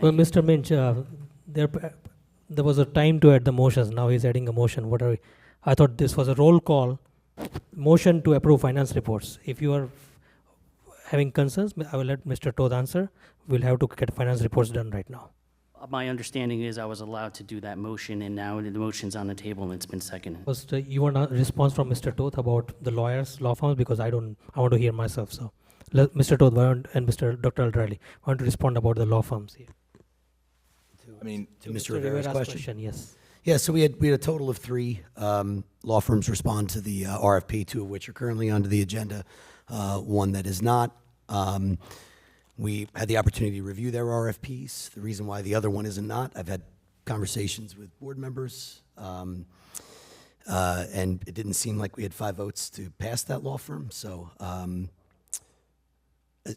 Well, Mr. Minch, uh, there, p- there was a time to add the motions. Now he's adding a motion. What are we? I thought this was a roll call. Motion to approve finance reports. If you are having concerns, I will let Mr. Todd answer. We'll have to get finance reports done right now. My understanding is I was allowed to do that motion, and now the motion's on the table and it's been seconded. First, uh, you want a response from Mr. Toth about the lawyers, law firms, because I don't, I want to hear myself, so. Let- Mr. Toth, why don't, and Mr. Dr. Aldrali, why don't you respond about the law firms here? I mean, to Mr. Mr. Rivera's question. Yes. Yeah, so we had, we had a total of three um, law firms respond to the uh, RFP, two of which are currently under the agenda, uh, one that is not. Um, We had the opportunity to review their RFPs. The reason why the other one isn't not, I've had conversations with board members, um, uh, and it didn't seem like we had five votes to pass that law firm, so um,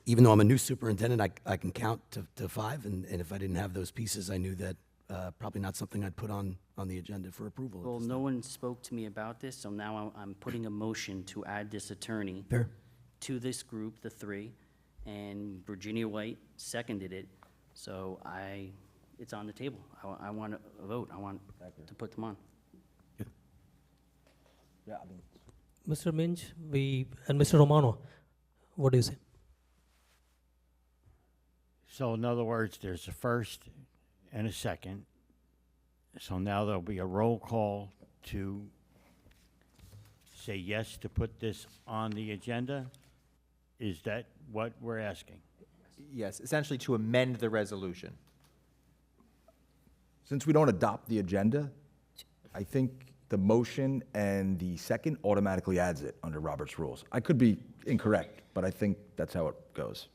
even though I'm a new superintendent, I, I can count to, to five, and, and if I didn't have those pieces, I knew that uh, probably not something I'd put on, on the agenda for approval. Well, no one spoke to me about this, so now I'm- I'm putting a motion to add this attorney Fair. to this group, the three, and Virginia White seconded it, so I, it's on the table. I want to vote, I want to put them on. Mr. Minch, we, and Mr. Romano, what do you say? So in other words, there's a first and a second. So now there'll be a roll call to say yes to put this on the agenda? Is that what we're asking? Yes, essentially to amend the resolution. Since we don't adopt the agenda, I think the motion and the second automatically adds it under Robert's rules. I could be incorrect, but I think that's how it goes.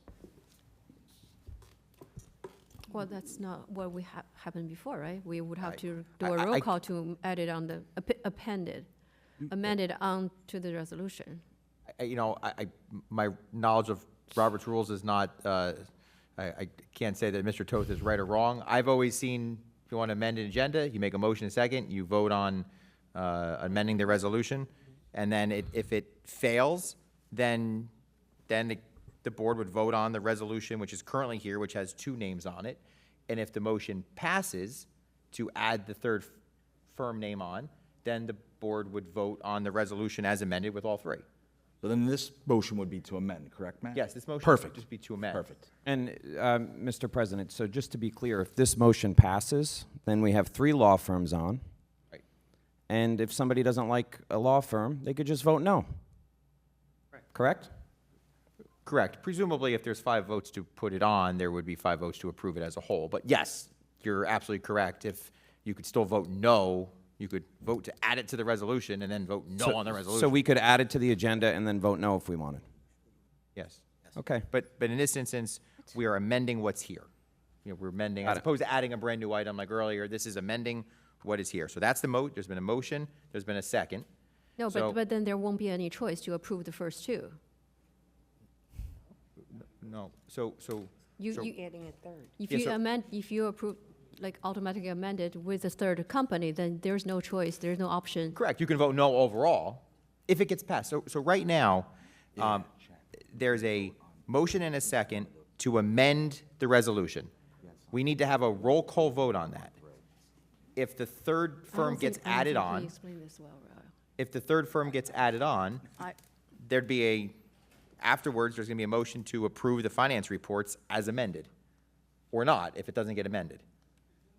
Well, that's not what we have, happened before, right? We would have to do I- a I- Mm, roll I- call to add it on the, app- appended, amended on to the resolution. I- I- You know, I, I- my knowledge of Robert's rules is not, uh, I, I can't say that Mr. Toth is right or wrong. I've always seen, if you want to amend an agenda, you make a motion a second, you vote on uh, amending the resolution, and then it- if it fails, then, then the- the board would vote on the resolution, which is currently here, which has two names on it. And if the motion passes to add the third firm name on, then the board would vote on the resolution as amended with all three. So then this motion would be to amend, correct, Matt? Yes, this motion would Perfect. just be to amend. Perfect. And, um, Mr. President, so just to be clear, if this motion passes, then we have three law firms on. Right. And if somebody doesn't like a law firm, they could just vote no. Correct? Correct. Presumably, if there's five votes to put it on, there would be five votes to approve it as a whole. But yes, you're absolutely correct. If you could still vote no, you could vote to add it to the resolution and then vote no on the resolution. So we could add it to the agenda and then vote no if we wanted. Yes. Okay. But, but in this instance, we are amending what's here. You know, we're amending, as it. opposed to adding a brand-new item like earlier, this is amending what is here. So that's the mo, there's been a motion, there's been a second. No, So- but, but then there won't be any choice to approve the first two. No, so, so. You, so- you, Adding a third. if Yeah, you so- amend, if you approve, like automatically amended with the third company, then there's no choice, there's no option. Correct. You can vote no overall if it gets passed. So, so right now, um, there's a motion and a second to amend the resolution. We need to have a roll call vote on that. If the third I don't firm gets think- I don't added think we on, explained this well, Raul. if the third firm gets added on, there'd be a, afterwards, there's gonna be a motion to approve the finance reports as amended, or not, if it doesn't get amended.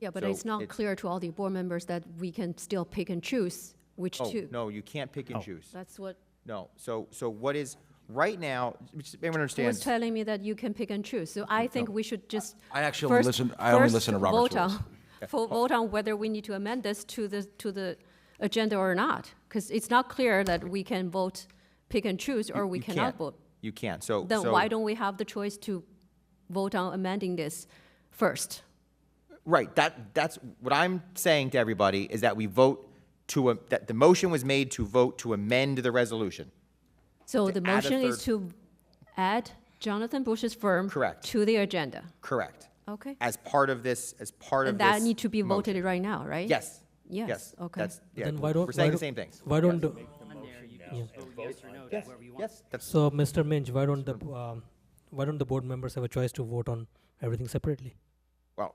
Yeah, but So it's not it's- clear to all the board members that we can still pick and choose which Oh, two. no, you can't pick and choose. That's what, No, so, so what is, right now, just everyone He was understands. telling me that you can pick and choose, so I think we should just. I actually only first- listen- I only first listen to Robert's vote on- rules. fo- Vote on whether we need to amend this to the, to the agenda or not, because it's not clear that we can vote, pick and choose, or we You cannot can't. vote. You can't, so. Then so- why don't we have the choice to vote on amending this first? Right, that, that's, what I'm saying to everybody is that we vote to, a- that the motion was made to vote to amend the resolution. So To the add a motion is third- to add Jonathan Bush's firm. Correct. To the agenda, Correct. okay? As part of this, as part of And this. that need to be motion. voted right now, right? Yes. Yes, okay. That's, yeah, Then why don't- we're saying why the don't- same things. Why don't, do- Yes, yes, that's, so, Mr. Minch, why don't the, um, why don't the board members have a choice to vote on everything separately? well,